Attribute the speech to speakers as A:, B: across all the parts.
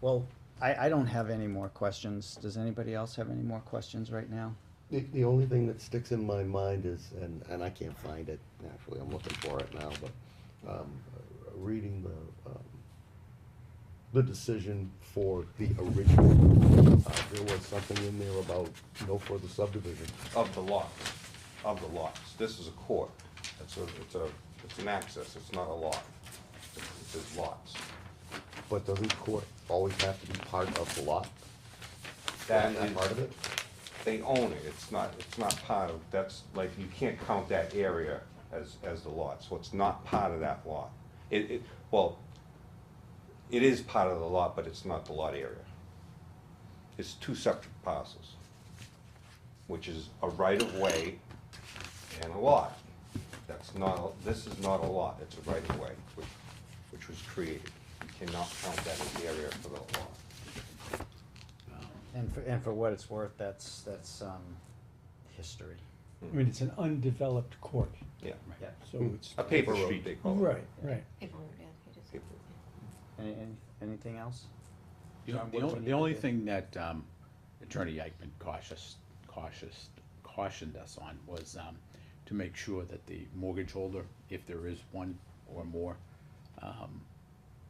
A: Well, I, I don't have any more questions. Does anybody else have any more questions right now?
B: The, the only thing that sticks in my mind is, and, and I can't find it, actually, I'm looking for it now, but, um, reading the, um, the decision for the original, uh, there was something in there about no further subdivision.
C: of the lot, of the lots. This is a court. It's a, it's a, it's an access, it's not a lot. It's- It's lots.
B: But doesn't court always have to be part of the lot?
C: That
B: Isn't that
C: is-
B: part of it?
C: They own it, it's not, it's not part of, that's, like, you can't count that area as, as the lot, so it's not part of that lot. It, it, well, it is part of the lot, but it's not the lot area. It's two separate parcels, which is a right-of-way and a lot. That's not, this is not a lot, it's a right-of-way, which, which was created. You cannot count that as the area for the lot.
A: And for, and for what it's worth, that's, that's, um, history.
D: I mean, it's an undeveloped court,
C: Yeah,
A: Yeah.
D: so
E: Hmm.
D: it's.
C: a paper road, they call it.
D: Right, right.
F: Paper route, yeah, you just-
C: Paper.
A: Any, any- anything else?
E: You know,
A: John,
E: the
A: what do
E: only,
A: we
E: the only
A: need to do?
E: thing that, um, Attorney Eichman cautious, cautious, cautioned us on was, um, to make sure that the mortgage holder, if there is one or more, um,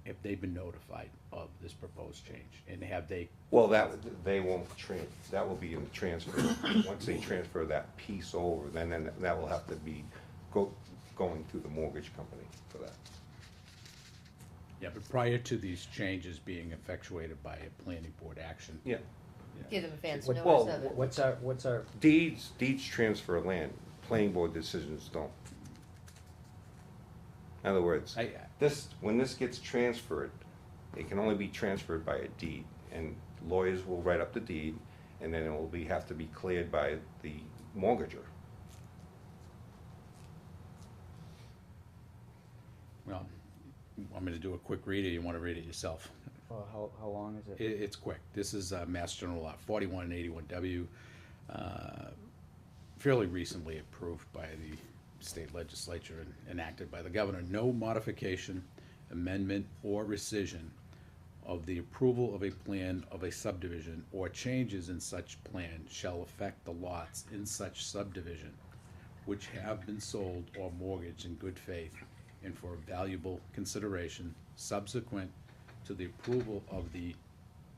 E: if they've been notified of this proposed change, and have they,
C: Well, that, they won't tran, that will be in the transfer. Once they transfer that piece over, then, then that will have to be go, going through the mortgage company for that.
E: yeah, but prior to these changes being effectuated by a planning board action.
C: Yeah.
F: Give them advance
A: What-
F: notice
C: well,
F: of it.
A: What's our, what's our,
C: Deeds, deeds transfer land, planning board decisions don't. In other words,
E: I,
C: this, when this gets transferred, it can only be transferred by a deed, and lawyers will write up the deed, and then it will be, have to be cleared by the mortgager.
E: well, I'm gonna do a quick read, or you wanna read it yourself?
A: well, uh, how, how long is
E: It,
A: it?
E: it's quick. This is uh, Mass General Law forty-one and eighty-one W, uh, fairly recently approved by the state legislature and enacted by the governor. No modification, amendment, or rescission of the approval of a plan of a subdivision or changes in such plan shall affect the lots in such subdivision which have been sold or mortgaged in good faith and for valuable consideration subsequent to the approval of the,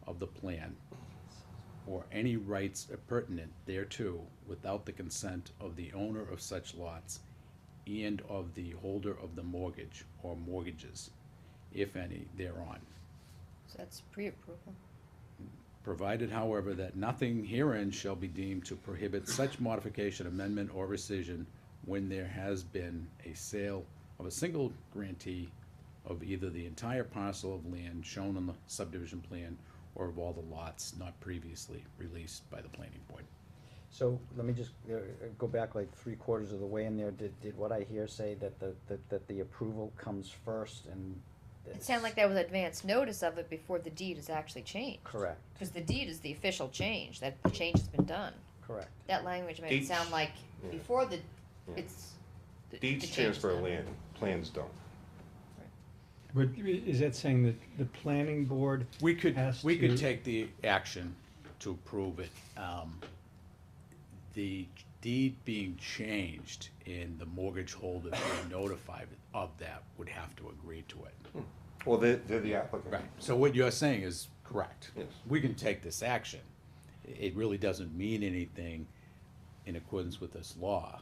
E: of the plan or any rights appurtenant thereto without the consent of the owner of such lots and of the holder of the mortgage or mortgages, if any, thereon.
F: So that's pre-approval.
E: Provided, however, that nothing herein shall be deemed to prohibit such modification, amendment, or rescission when there has been a sale of a single grantee of either the entire parcel of land shown on the subdivision plan or of all the lots not previously released by the planning board.
A: So let me just uh, uh, go back like three quarters of the way in there. Did, did what I hear say that the, that, that the approval comes first and?
F: It sounded like that was advance notice of it before the deed is actually changed.
A: Correct,
F: Because the deed is the official change, that the change has been done.
A: correct.
F: That language made it
C: Deeds-
F: sound like
C: yeah.
F: before the,
C: Yeah.
F: it's. the- the
C: Deeds
F: change
C: transfer
F: done.
C: land, plans don't.
D: But i- is that saying that the planning board,
E: We could,
D: Has
E: we could
D: to-
E: take the action to approve it. Um, The deed being changed and the mortgage holder being notified of that would have to agree to it.
C: Well, they're, they're the applicant.
E: Right, so what you're saying is correct.
C: Yes.
E: We can take this action. It really doesn't mean anything in accordance with this law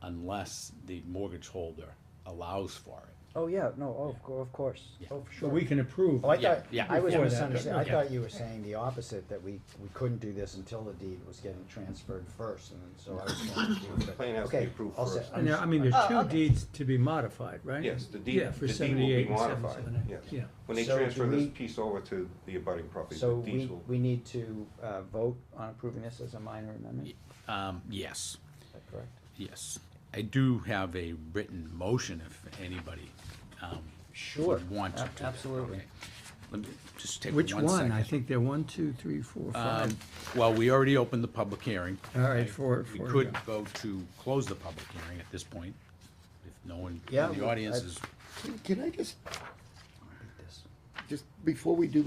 E: unless the mortgage holder allows for it.
A: Oh, yeah, no, oh, of cour- of course,
E: Yeah.
A: oh, for
D: but
A: sure.
D: we can approve.
A: Oh, I
E: Yeah,
A: thought,
E: yeah.
A: I was
D: Before that,
A: misunderstanding, I
D: yeah.
A: thought you were saying the opposite, that we, we couldn't do this until the deed was getting transferred first, and so I was confused.
C: The
A: but-
C: plan has to be
A: Okay,
C: approved
A: all set.
C: first.
D: And, uh, I mean, there's
F: Oh,
D: two
F: okay.
D: deeds to be modified, right?
C: Yes, the deed,
D: Yeah,
C: the deed will
D: for
C: be
D: 78 and
C: modified,
D: 778,
C: yes.
D: yeah.
C: When they
A: So do
C: transfer this
A: we-
C: piece over to the abutting property,
A: So
C: the
A: we,
C: deeds will,
A: we need to, uh, vote on approving this as a minor amendment, is
E: Um, yes.
A: that correct?
E: Yes, I do have a written motion if anybody, um.
A: Sure,
E: would Want
A: ab-
E: to.
A: absolutely.
E: Okay. Let me just take one
D: Which
E: second.
D: one? I think they're one, two, three, four, five.
E: Um, well, we already opened the public hearing.
D: All right, for,
E: We
D: for.
E: could go to close the public hearing at this point, if no one
A: Yeah,
E: in the
A: well,
E: audience
A: I-
E: is
B: Can I just,
A: Like this.
B: just before we do